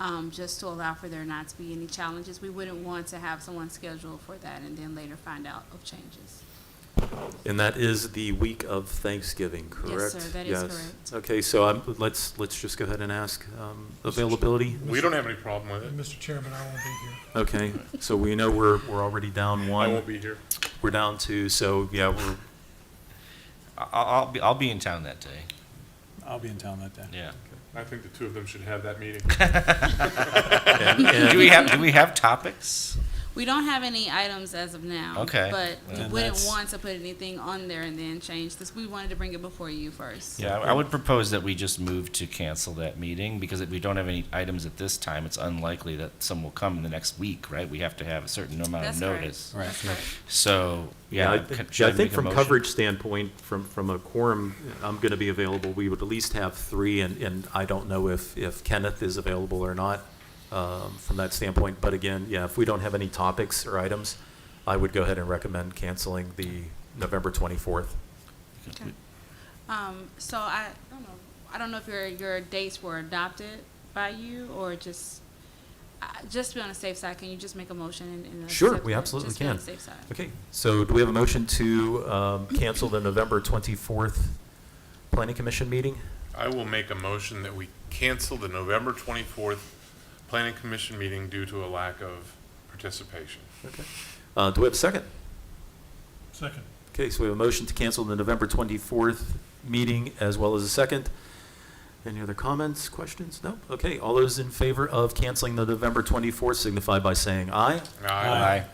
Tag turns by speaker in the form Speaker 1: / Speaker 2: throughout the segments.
Speaker 1: um, just to allow for there not to be any challenges. We wouldn't want to have someone scheduled for that and then later find out of changes.
Speaker 2: And that is the week of Thanksgiving,
Speaker 1: Yes,
Speaker 2: correct?
Speaker 1: sir, that is correct.
Speaker 2: Okay, so I'm, let's, let's just go ahead and ask um, availability.
Speaker 3: We don't have any problem with it.
Speaker 4: Mr. Chairman, I won't be here.
Speaker 2: Okay, so we know we're, we're already down
Speaker 3: I
Speaker 2: one.
Speaker 3: won't be here.
Speaker 2: We're down two, so yeah, we're,
Speaker 5: I- I'll, I'll be, I'll be in town that day,
Speaker 6: I'll be in town that day.
Speaker 5: yeah.
Speaker 3: I think the two of them should have that meeting.
Speaker 2: and-
Speaker 5: Do
Speaker 2: and-
Speaker 5: we have, do we have topics?
Speaker 1: We don't have any items as of now.
Speaker 5: Okay.
Speaker 1: But we
Speaker 6: Then
Speaker 1: wouldn't
Speaker 6: that's-
Speaker 1: want to put anything on there and then change this. We wanted to bring it before you first.
Speaker 5: Yeah, I I would propose that we just move to cancel that meeting, because if we don't have any items at this time, it's unlikely that some will come in the next week, right? We have to have a certain amount of
Speaker 1: That's correct.
Speaker 5: uh, notice.
Speaker 6: Right.
Speaker 1: That's correct.
Speaker 5: So,
Speaker 2: yeah,
Speaker 5: yeah.
Speaker 2: I
Speaker 5: can-
Speaker 2: think-
Speaker 5: should
Speaker 2: I think
Speaker 5: make a
Speaker 2: from
Speaker 5: motion?
Speaker 2: coverage standpoint, from, from a quorum, I'm going to be available. We would at least have three, and, and I don't know if, if Kenneth is available or not um, from that standpoint. But again, yeah, if we don't have any topics or items, I would go ahead and recommend canceling the November 24th.
Speaker 1: Okay. Um, so I don't know, I don't know if your, your dates were adopted by you or just, I- just to be on the safe side, can you just make a motion and? and
Speaker 2: Sure,
Speaker 1: accept
Speaker 2: we
Speaker 1: it?
Speaker 2: absolutely
Speaker 1: Just be on
Speaker 2: can.
Speaker 1: the safe side.
Speaker 2: Okay, so do we have a motion to um, cancel the November 24th Planning Commission meeting?
Speaker 3: I will make a motion that we cancel the November 24th Planning Commission meeting due to a lack of participation.
Speaker 2: Okay. Uh, Do we have a second?
Speaker 4: Second.
Speaker 2: Okay, so we have a motion to cancel the November 24th meeting as well as a second. Any other comments, questions? No? Okay, all those in favor of canceling the November 24th signify by saying aye.
Speaker 3: Aye.
Speaker 5: Aye.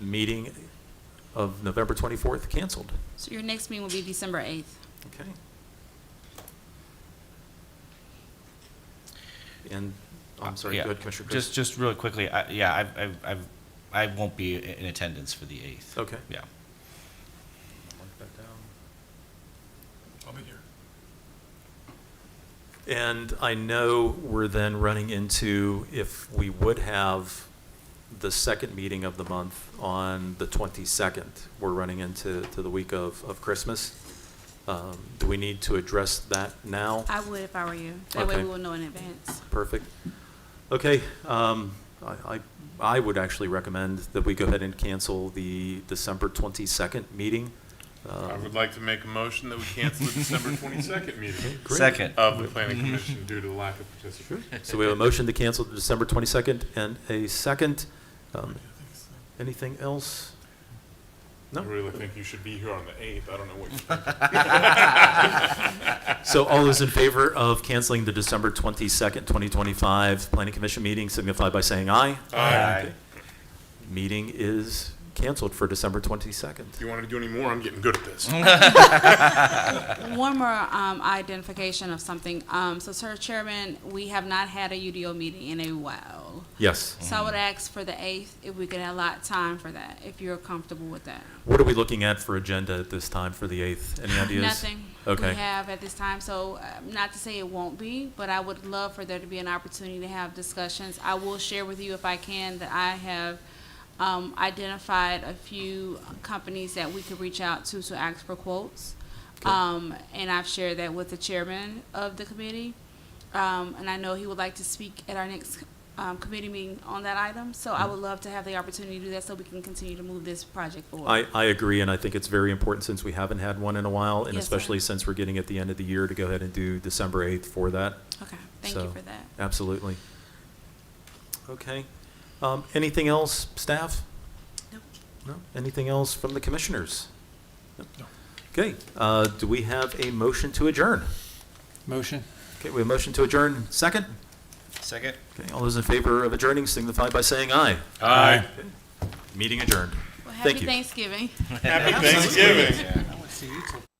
Speaker 2: Meeting of November 24th canceled.
Speaker 1: So your next meeting will be December eighth.
Speaker 2: Okay. And, Oh, I'm sorry,
Speaker 5: Yeah.
Speaker 2: go ahead, Commissioner Chris.
Speaker 5: Just, just really quickly, I, yeah, I've, I've, I've, I won't be i- in attendance for the eighth.
Speaker 2: Okay.
Speaker 5: Yeah.
Speaker 4: I'll be here.
Speaker 2: And I know we're then running into if we would have the second meeting of the month on the 22nd, we're running into to the week of, of Christmas. Um, Do we need to address that now?
Speaker 1: I would if I were you. That way
Speaker 2: Okay.
Speaker 1: we will know in advance.
Speaker 2: Perfect. Okay, um, I, I I would actually recommend that we go ahead and cancel the December 22nd meeting. Um,
Speaker 3: I would like to make a motion that we cancel the December 22nd meeting
Speaker 2: Great.
Speaker 5: Second.
Speaker 3: of the Planning Commission due to lack of participation.
Speaker 2: So we have a motion to cancel the December 22nd and a second. Um, Anything else?
Speaker 3: I
Speaker 2: No?
Speaker 3: really think you should be here on the 8th. I don't know what you think.
Speaker 2: So all those in favor of canceling the December 22nd, 2025 Planning Commission meeting signify by saying aye.
Speaker 5: Aye.
Speaker 2: Meeting is canceled for December 22nd.
Speaker 3: If you want to do any more, I'm getting good at this.
Speaker 1: One more um, identification of something. Um, so, Sir Chairman, we have not had a UDO meeting in a while.
Speaker 2: Yes.
Speaker 1: So I would ask for the 8th if we could allot time for that, if you're comfortable with that.
Speaker 2: What are we looking at for agenda at this time for the 8th? Any ideas?
Speaker 1: Nothing we
Speaker 2: Okay.
Speaker 1: have at this time. So, uh, not to say it won't be, but I would love for there to be an opportunity to have discussions. I will share with you, if I can, that I have um, identified a few companies that we could reach out to to ask for quotes.
Speaker 2: Okay.
Speaker 1: Um, and I've shared that with the chairman of the committee. Um, and I know he would like to speak at our next um, committee meeting on that item. So,
Speaker 2: Mm-hmm.
Speaker 1: I would love to have the opportunity to do that so we can continue to move this project forward.
Speaker 2: I, I agree, and I think it's very important since we haven't had one in a while, and
Speaker 1: Yes, sir.
Speaker 2: especially since we're getting at the end of the year to go ahead and do December 8th for that.
Speaker 1: okay, thank
Speaker 2: So-
Speaker 1: you for that.
Speaker 2: Absolutely. Okay. Um, Anything else, staff?
Speaker 1: Nope.
Speaker 2: No? Anything else from the commissioners?
Speaker 4: No.
Speaker 2: Okay, uh, do we have a motion to adjourn?
Speaker 6: Motion?
Speaker 2: Okay, we have a motion to adjourn. Second?
Speaker 5: Second.
Speaker 2: Okay, all those in favor of adjourning signify by saying aye.
Speaker 3: Aye.
Speaker 2: Meeting adjourned.
Speaker 1: Well,
Speaker 2: Thank
Speaker 1: happy
Speaker 2: you.
Speaker 1: Thanksgiving.
Speaker 3: Happy Thanksgiving.
Speaker 6: I want to see you too.